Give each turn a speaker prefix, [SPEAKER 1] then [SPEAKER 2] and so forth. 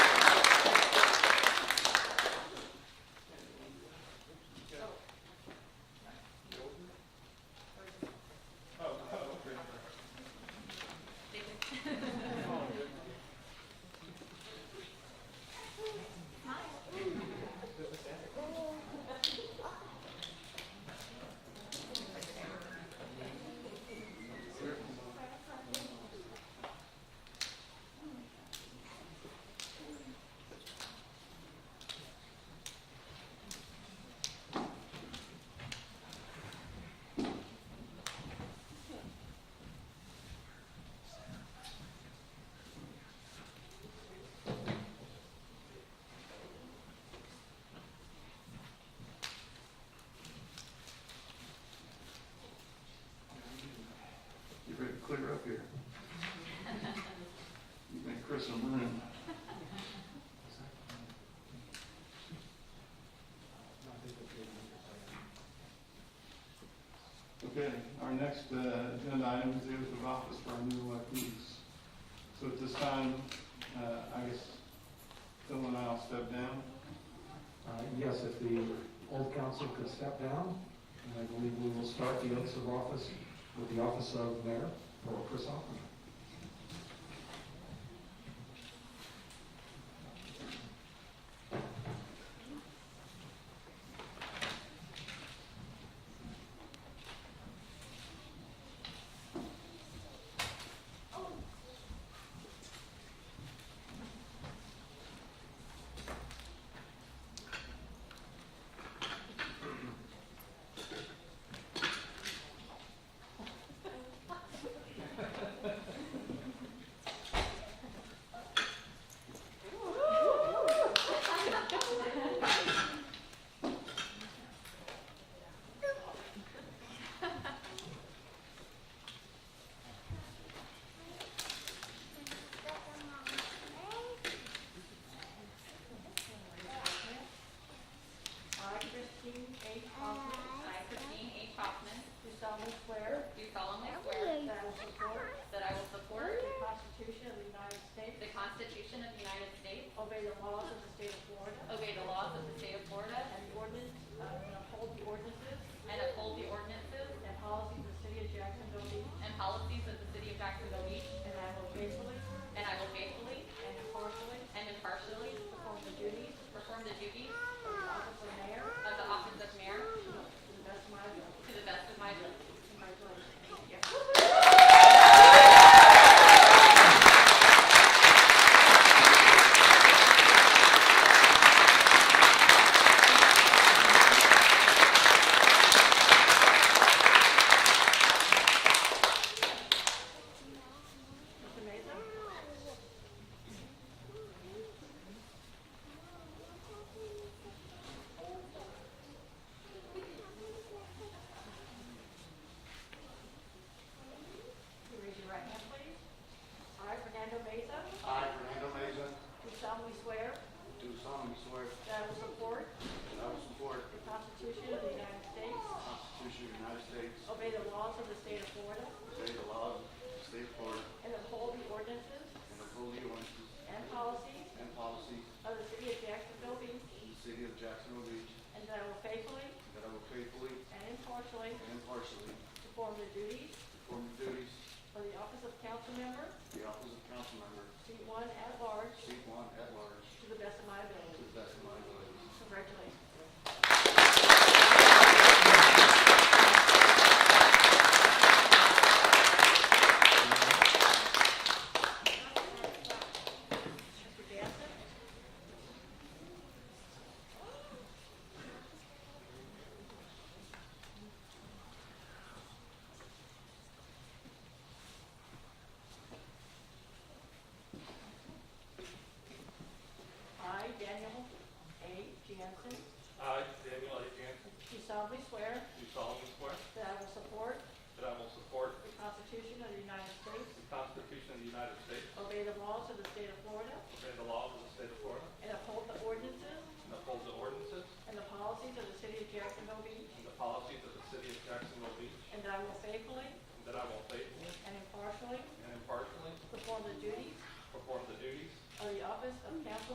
[SPEAKER 1] next uh, agenda item is the oath of office for our new electees. So at this time, uh, I guess Phil and I will step down.
[SPEAKER 2] Uh, Yes, if the old council could step down, and I believe we will start the oaths of office with the office of mayor for Chris Hoffman.
[SPEAKER 3] I, Christine H. Hoffman,
[SPEAKER 4] I, Christine H. Hoffman,
[SPEAKER 3] do solemnly swear
[SPEAKER 4] do solemnly
[SPEAKER 3] that
[SPEAKER 4] swear
[SPEAKER 3] I will support
[SPEAKER 4] that I will support
[SPEAKER 3] the Constitution of the United States,
[SPEAKER 4] the Constitution of the United States,
[SPEAKER 3] obey the laws of the state of Florida,
[SPEAKER 4] obey the laws of the state of Florida,
[SPEAKER 3] and the ordinance, uh, and uphold the ordinances
[SPEAKER 4] and uphold the ordinances
[SPEAKER 3] and policies of the city of Jacksonville Beach,
[SPEAKER 4] and policies of the city of Jacksonville Beach,
[SPEAKER 3] and I will faithfully
[SPEAKER 4] and I will faithfully
[SPEAKER 3] and impartially
[SPEAKER 4] and impartially
[SPEAKER 3] perform the duties
[SPEAKER 4] perform the duties
[SPEAKER 3] of the office of mayor
[SPEAKER 4] of the office of mayor
[SPEAKER 3] to the best of my ability.
[SPEAKER 4] to the best of my ability.
[SPEAKER 3] Congratulations.
[SPEAKER 4] Thank you.
[SPEAKER 3] It's amazing. You Raise your right hand, please. I, Fernando Meza,
[SPEAKER 5] I, Fernando Meza,
[SPEAKER 3] do solemnly swear
[SPEAKER 5] do solemnly swear
[SPEAKER 3] that I will support
[SPEAKER 5] that I will support
[SPEAKER 3] the Constitution of the United States,
[SPEAKER 5] the Constitution of the United States,
[SPEAKER 3] obey the laws of the state of Florida,
[SPEAKER 5] obey the laws of the state of Florida,
[SPEAKER 3] and uphold the ordinances
[SPEAKER 5] and uphold the ordinances
[SPEAKER 3] and policies
[SPEAKER 5] and policies
[SPEAKER 3] of the city of Jacksonville Beach,
[SPEAKER 5] of the city of Jacksonville Beach,
[SPEAKER 3] and that I will faithfully
[SPEAKER 5] that I will faithfully
[SPEAKER 3] and impartially
[SPEAKER 5] and impartially
[SPEAKER 3] perform the duties
[SPEAKER 5] perform the duties
[SPEAKER 3] for the office of council member,
[SPEAKER 5] of the office of council member,
[SPEAKER 3] seat one at large,
[SPEAKER 5] seat one at large,
[SPEAKER 3] to the best of my
[SPEAKER 5] to
[SPEAKER 3] ability.
[SPEAKER 5] the best of my ability.
[SPEAKER 3] Congratulations. Mr. Gadsden? I, Daniel A. Jansen,
[SPEAKER 6] I, Daniel A. Jansen,
[SPEAKER 3] do solemnly swear
[SPEAKER 6] do solemnly swear
[SPEAKER 3] that I will support
[SPEAKER 6] that I will support
[SPEAKER 3] the Constitution of the United States,
[SPEAKER 6] the Constitution of the United States,
[SPEAKER 3] obey the laws of the state of Florida,